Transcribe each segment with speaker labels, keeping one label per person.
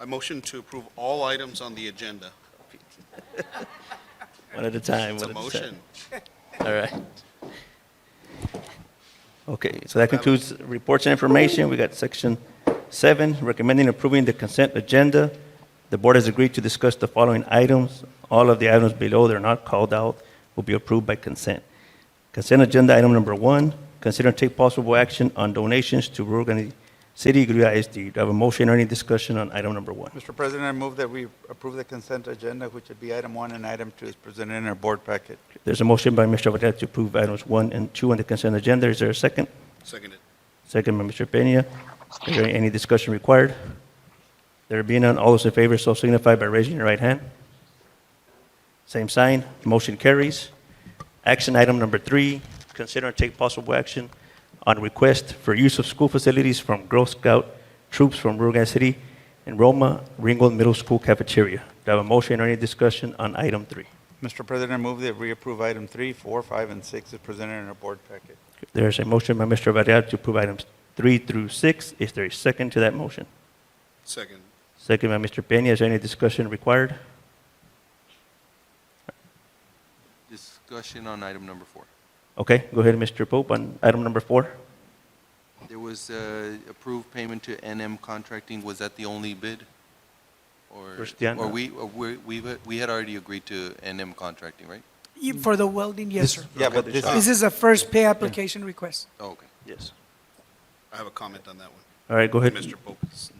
Speaker 1: I motion to approve all items on the agenda.
Speaker 2: One at a time.
Speaker 1: It's a
Speaker 2: one at time.
Speaker 1: motion.
Speaker 2: All right. Okay, so that concludes reports and information. We got section seven, recommending approving the consent agenda. The board has agreed to discuss the following items. All of the items below that are not called out will be approved by consent. Consent agenda item number one, consider and take possible action on donations to Rio Grande City Gruya SD. Do I have a motion or any discussion on item number one?
Speaker 3: Mr. President, I move that we approve the consent agenda, which would be item one and item two is presented in our board packet.
Speaker 2: There's a motion by Mr. Varela to approve items one and two on the consent agenda. Is there a second?
Speaker 1: Seconded.
Speaker 2: Second by Mr. Peña. Is there any discussion required? There being none, all those in favor so signify by raising your right hand. Same sign, motion carries. Action item number three, consider and take possible action on request for use of school facilities from Girl Scout troops from Rio Grande City and Roma Ringgold Middle School cafeteria. Do I have a motion or any discussion on item three?
Speaker 3: Mr. President, I move that we approve item three, four, five, and six is presented in our board packet.
Speaker 2: There's a motion by Mr. Varela to approve items three through six. Is there a second to that motion?
Speaker 1: Second.
Speaker 2: Second by Mr. Peña. Is there any discussion required?
Speaker 4: Discussion on item number four.
Speaker 2: Okay, go ahead, Mr. Pope, on item number four.
Speaker 4: There was uh, approved payment to NM Contracting. Was that the only bid? Or-
Speaker 2: Christiana.
Speaker 4: Or we, or we, we- we had already agreed to NM Contracting, right?
Speaker 5: You- For the welding, yes, sir.
Speaker 3: Yeah, but this, Ah.
Speaker 5: This is a first pay application request.
Speaker 4: Oh, Okay.
Speaker 2: Yes.
Speaker 1: I have a comment on that one.
Speaker 2: All right, go ahead.
Speaker 1: Mr. Pope. is-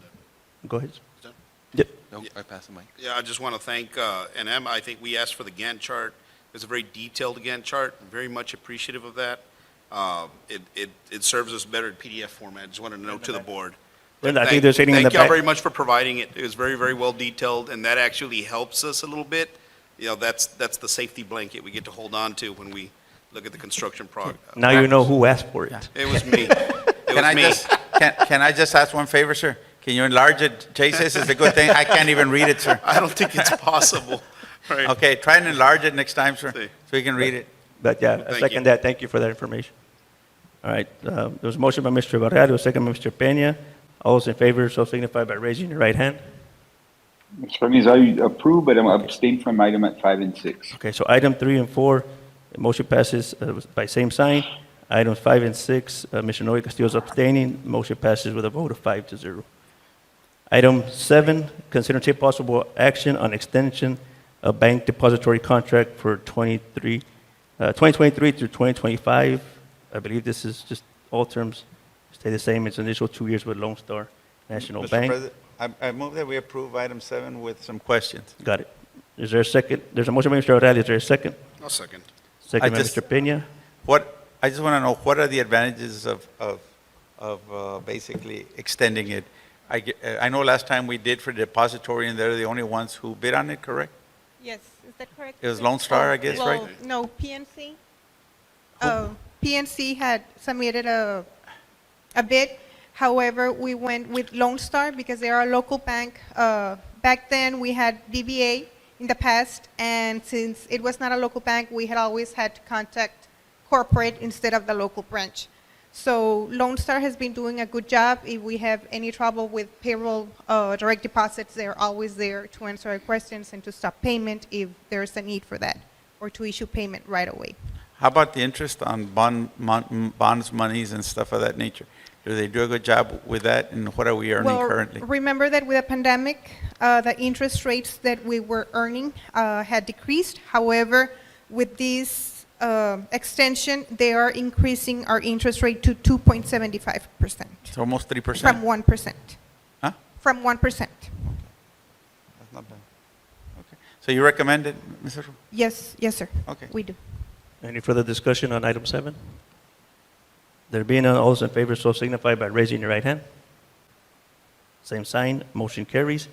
Speaker 2: Go ahead.
Speaker 1: is that-
Speaker 2: Yep.
Speaker 4: No, I pass the mic.
Speaker 1: Yeah, I just want to thank uh, NM. I think we asked for the Gantt chart. It's a very detailed Gantt chart, very much appreciative of that. Uh, It, it, it serves us better in PDF format, just wanted to note to the board.
Speaker 2: Linda, I
Speaker 1: Thank-
Speaker 2: think there's anything in the
Speaker 1: Thank y'all
Speaker 2: back.
Speaker 1: very much for providing it. It was very, very well detailed, and that actually helps us a little bit. You know, that's, that's the safety blanket we get to hold on to when we look at the construction prog. uh,
Speaker 2: Now you know who asked for it.
Speaker 1: It was me. It
Speaker 3: can I
Speaker 1: was me.
Speaker 3: just, can, can I just ask one favor, sir? Can you enlarge it? Jay says it's a good thing. I can't even read it, sir.
Speaker 1: I don't think it's possible. Right.
Speaker 3: Okay, try and enlarge it next time, sir, so
Speaker 1: See.
Speaker 3: we can read it.
Speaker 2: But yeah, I
Speaker 1: Thank you.
Speaker 2: second that. Thank you for that information. All right, uh, there was a motion by Mr. Varela, a second by Mr. Peña. All those in favor, so signify by raising your right hand.
Speaker 6: Mr. President, I approve, but I'm abstain from item at five and six.
Speaker 2: Okay, so item three and four, the motion passes uh, by same sign. Items five and six, uh, Mr. Noe Castillo's abstaining. Motion passes with a vote of five to zero. Item seven, consider and take possible action on extension of bank depository contract for 23, uh, 2023 through 2025. I believe this is just all terms stay the same. It's initial two years with Lone Star National
Speaker 3: Mr.
Speaker 2: Bank.
Speaker 3: President, I, I move that we approve item seven with some questions.
Speaker 2: Got it. Is there a second? There's a motion by Mr. Varela. Is there a second?
Speaker 1: I'll second.
Speaker 2: Second by
Speaker 3: just-
Speaker 2: Mr. Peña.
Speaker 3: What, I just want to know, what are the advantages of, of, of uh, basically extending it? I, ge- uh, I know last time we did for depository, and they're the only ones who bid on it, correct?
Speaker 7: Yes, is that correct?
Speaker 3: It was Lone Star, I guess, right?
Speaker 7: Well, no, PNC. Oh, PNC had submitted a, a bid. However, we went with Lone Star because they are a local bank. Uh, Back then, we had DBA in the past, and since it was not a local bank, we had always had to contact corporate instead of the local branch. So Lone Star has been doing a good job. If we have any trouble with payroll, uh, direct deposits, they're always there to answer our questions and to stop payment if there's a need for that, or to issue payment right away.
Speaker 3: How about the interest on bond, mon- bonds monies and stuff of that nature? Do they do a good job with that, and what are we earning
Speaker 7: well,
Speaker 3: currently?
Speaker 7: remember that with the pandemic, uh, the interest rates that we were earning uh, had decreased. However, with this uh, extension, they are increasing our interest rate to 2.75 percent
Speaker 3: It's almost three
Speaker 7: from
Speaker 3: percent?
Speaker 7: one percent.
Speaker 3: Huh?
Speaker 7: From one percent.
Speaker 3: That's not bad. Okay. So you recommend it, Mr. Ru-
Speaker 7: Yes, yes, sir.
Speaker 3: Okay.
Speaker 7: We do.
Speaker 2: Any further discussion on item seven? There being none, all those in favor so signify by raising your right hand. Same sign, motion carries.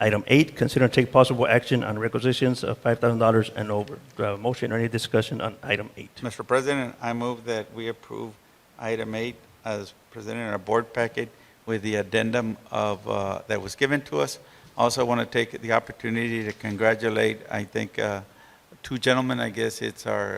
Speaker 2: Item eight, consider and take possible action on requisitions of $5,000 and over. Do I have a motion or any discussion on item eight?
Speaker 3: Mr. President, I move that we approve item eight as presented in our board packet with the addendum of, uh, that was given to us. Also want to take the opportunity to congratulate, I think, uh, two gentlemen, I guess it's our